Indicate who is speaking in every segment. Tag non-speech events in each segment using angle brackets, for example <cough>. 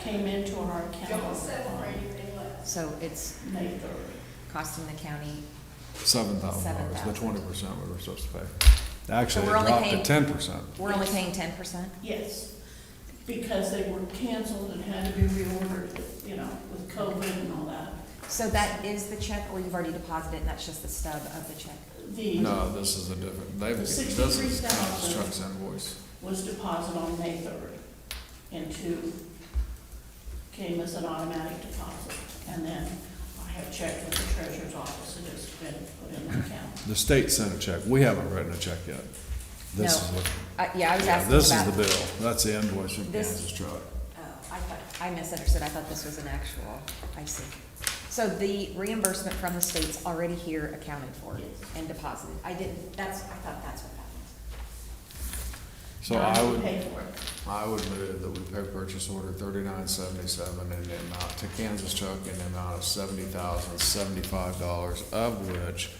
Speaker 1: came into our
Speaker 2: Don't
Speaker 1: account
Speaker 2: settle for anything less.
Speaker 3: So it's
Speaker 1: on May third.
Speaker 3: costing the county,
Speaker 4: Seven thousand dollars, the twenty
Speaker 3: $7,000.
Speaker 4: percent we were supposed to pay. Actually, it
Speaker 3: we're only
Speaker 4: dropped to
Speaker 3: paying-
Speaker 4: ten percent.
Speaker 3: we're only paying ten percent?
Speaker 1: Yes, because they were canceled and had to be reordered, you know, with COVID and all that.
Speaker 3: So that is the check, or you've already deposited, and that's just the stub of the check?
Speaker 1: The
Speaker 4: No, this is a different, they've,
Speaker 1: The
Speaker 4: this is
Speaker 1: $63,000.
Speaker 4: Chuck's invoice.
Speaker 1: was deposited on May third and two came as an automatic deposit. And then I have checked with the treasurer's office, it has been put in the account.
Speaker 4: The state sent a check, we haven't written a check yet. This
Speaker 3: No.
Speaker 4: is what,
Speaker 3: Uh, yeah, I was
Speaker 4: yeah,
Speaker 3: asking
Speaker 4: this is
Speaker 3: about-
Speaker 4: the bill, that's the invoice from
Speaker 3: This-
Speaker 4: Kansas Truck.
Speaker 3: Oh, I thought, I misunderstood, I thought this was an actual, I see. So the reimbursement from the state's already here accounted for
Speaker 1: Yes.
Speaker 3: and deposited, I didn't, that's, I thought that's what that
Speaker 4: So
Speaker 1: Now
Speaker 4: I
Speaker 1: have to
Speaker 4: would,
Speaker 1: Pay for it.
Speaker 4: I would move that we pay purchase order thirty-nine seventy-seven in the amount to Kansas Truck in the amount of seventy thousand seventy-five dollars, of which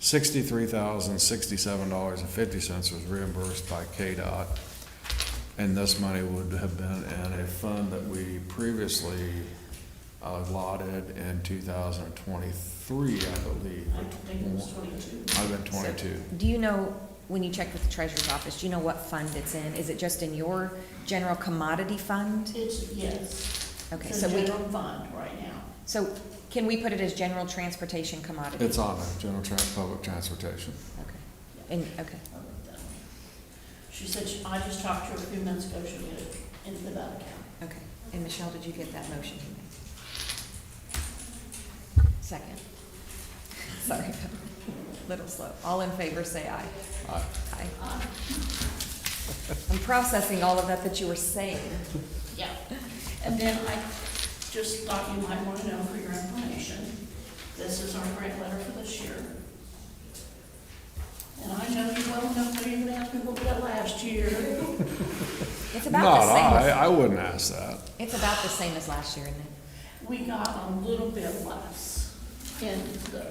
Speaker 4: sixty-three thousand sixty-seven dollars and fifty cents was reimbursed by KDOT. And this money would have been in a fund that we previously uh, allotted in two thousand and twenty-three, I believe.
Speaker 1: I think it was twenty-two.
Speaker 4: I've been
Speaker 3: was. So,
Speaker 4: twenty-two.
Speaker 3: Do you know, when you checked with the treasurer's office, do you know what fund it's in? Is it just in your general commodity fund?
Speaker 1: It's, yes.
Speaker 3: Okay,
Speaker 1: It's
Speaker 3: so
Speaker 1: a
Speaker 3: we,
Speaker 1: general fund right now.
Speaker 3: so can we put it as general transportation commodity?
Speaker 4: It's on there, general trans, public transportation.
Speaker 3: Okay, and, okay,
Speaker 1: I wrote that one. She said, she- I just talked to her a few minutes ago, she'll get it into the bank account.
Speaker 3: okay. And Michelle, did you get that motion? he made? Second. <laughs> Sorry, <laughs> little slow. All in favor, say aye.
Speaker 4: Aye.
Speaker 3: Aye. I'm processing all of that that you were saying.
Speaker 1: Yeah. And then I just thought you might want to know for your information, this is our grant letter for this year. And I know you well enough that you're gonna ask me what we got last year.
Speaker 3: It's about
Speaker 4: Not
Speaker 3: the same.
Speaker 4: I,
Speaker 3: as-
Speaker 4: I wouldn't ask that.
Speaker 3: It's about the same as last year, isn't it?
Speaker 1: We got a little bit less in the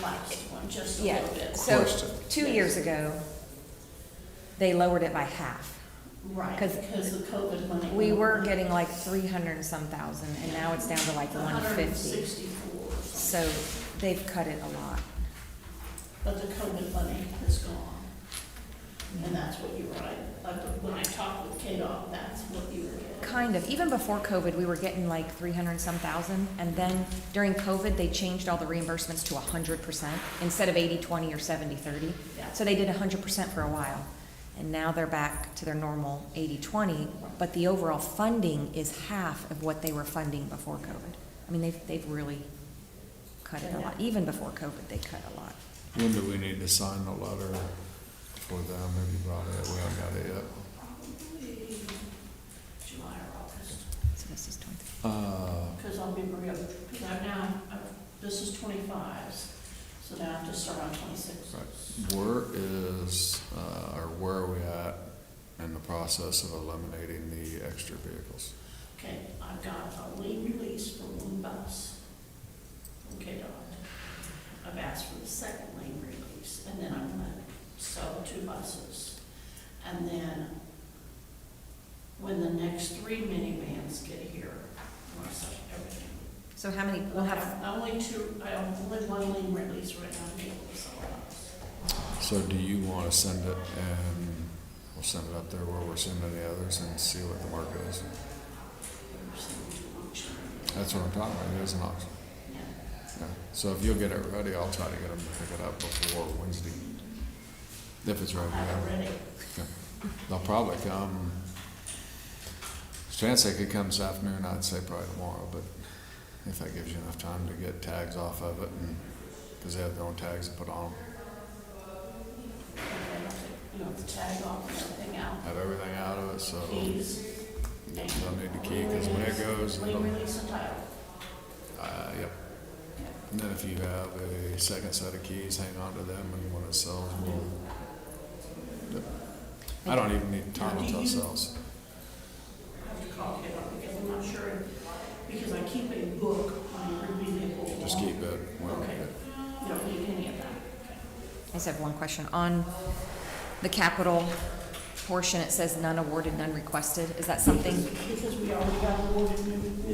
Speaker 1: last one, just a
Speaker 3: Yeah.
Speaker 1: little bit.
Speaker 3: So,
Speaker 4: Question.
Speaker 3: two years ago, they lowered it by half.
Speaker 1: Right,
Speaker 3: 'Cause
Speaker 1: because the COVID money.
Speaker 3: We were
Speaker 1: went-
Speaker 3: getting like three hundred and some thousand, and now it's down to like one fifty.
Speaker 1: 164 or something.
Speaker 3: So they've cut it a lot.
Speaker 1: But the COVID money is gone. And that's what you were, I- I, when I talked with KDOT, that's what you were getting.
Speaker 3: Kind of. Even before COVID, we were getting like three hundred and some thousand, and then during COVID, they changed all the reimbursements to hundred percent instead of 80-20 or 70-30.
Speaker 1: Yeah.
Speaker 3: So they did hundred percent for a while, and now they're back to their normal 80-20. But the overall funding is half of what they were funding before COVID. I mean, they've they've really cut it a lot. Even before COVID, they cut a lot.
Speaker 4: When do we need to sign the letter for them? Have you brought it? We haven't got it yet.
Speaker 1: Probably July or August,
Speaker 3: So this is twenty-three.
Speaker 4: Uh,
Speaker 1: because I'll be real, because I'm now, I'm- this is twenty-fives, so now I have to start on twenty-six.
Speaker 4: where is, uh, or where are we at in the process of eliminating the extra vehicles?
Speaker 1: Okay, I've got a lien release for one bus from KDOT. I've asked for the second lien release, and then I'm gonna sell two buses. And then, when the next three minivans get here, I'm gonna sell everything.
Speaker 3: So how many? We'll have
Speaker 1: I only two, I only one lien release right now, I'm able to sell a bus.
Speaker 4: So do you want to send it and we'll send it up there where we're sending the others and see what the market is?
Speaker 1: There's no auction.
Speaker 4: That's what I'm talking about. It is an auction.
Speaker 1: Yeah.
Speaker 4: Yeah. So if you'll get it ready, I'll try to get them to pick it up before Wednesday. If it's ready.
Speaker 1: I have
Speaker 4: yeah.
Speaker 1: it ready.
Speaker 4: They'll probably come, there's a chance they could come this afternoon, I'd say probably tomorrow, but if that gives you enough time to get tags off of it and, because they have their own tags to put on 'em.
Speaker 1: And, You know, the tag off and everything out.
Speaker 4: have everything out of it, so
Speaker 1: Keys.
Speaker 4: they'll need the key, because when it goes,
Speaker 1: Lien
Speaker 4: it'll,
Speaker 1: release and title.
Speaker 4: uh, yep. And then if you have a second set of keys, hang on to them and when it sells, we'll. Yep. I don't even need, Tom will tell sales.
Speaker 1: I have to call it up because I'm not sure, because I keep a book on every vehicle.
Speaker 4: just keep it. we'll make
Speaker 1: Okay.
Speaker 4: it.
Speaker 1: You don't need any of that.
Speaker 3: I just have one question on the capital portion, it says none awarded, none requested. Is that something?
Speaker 1: Because we already got awarded new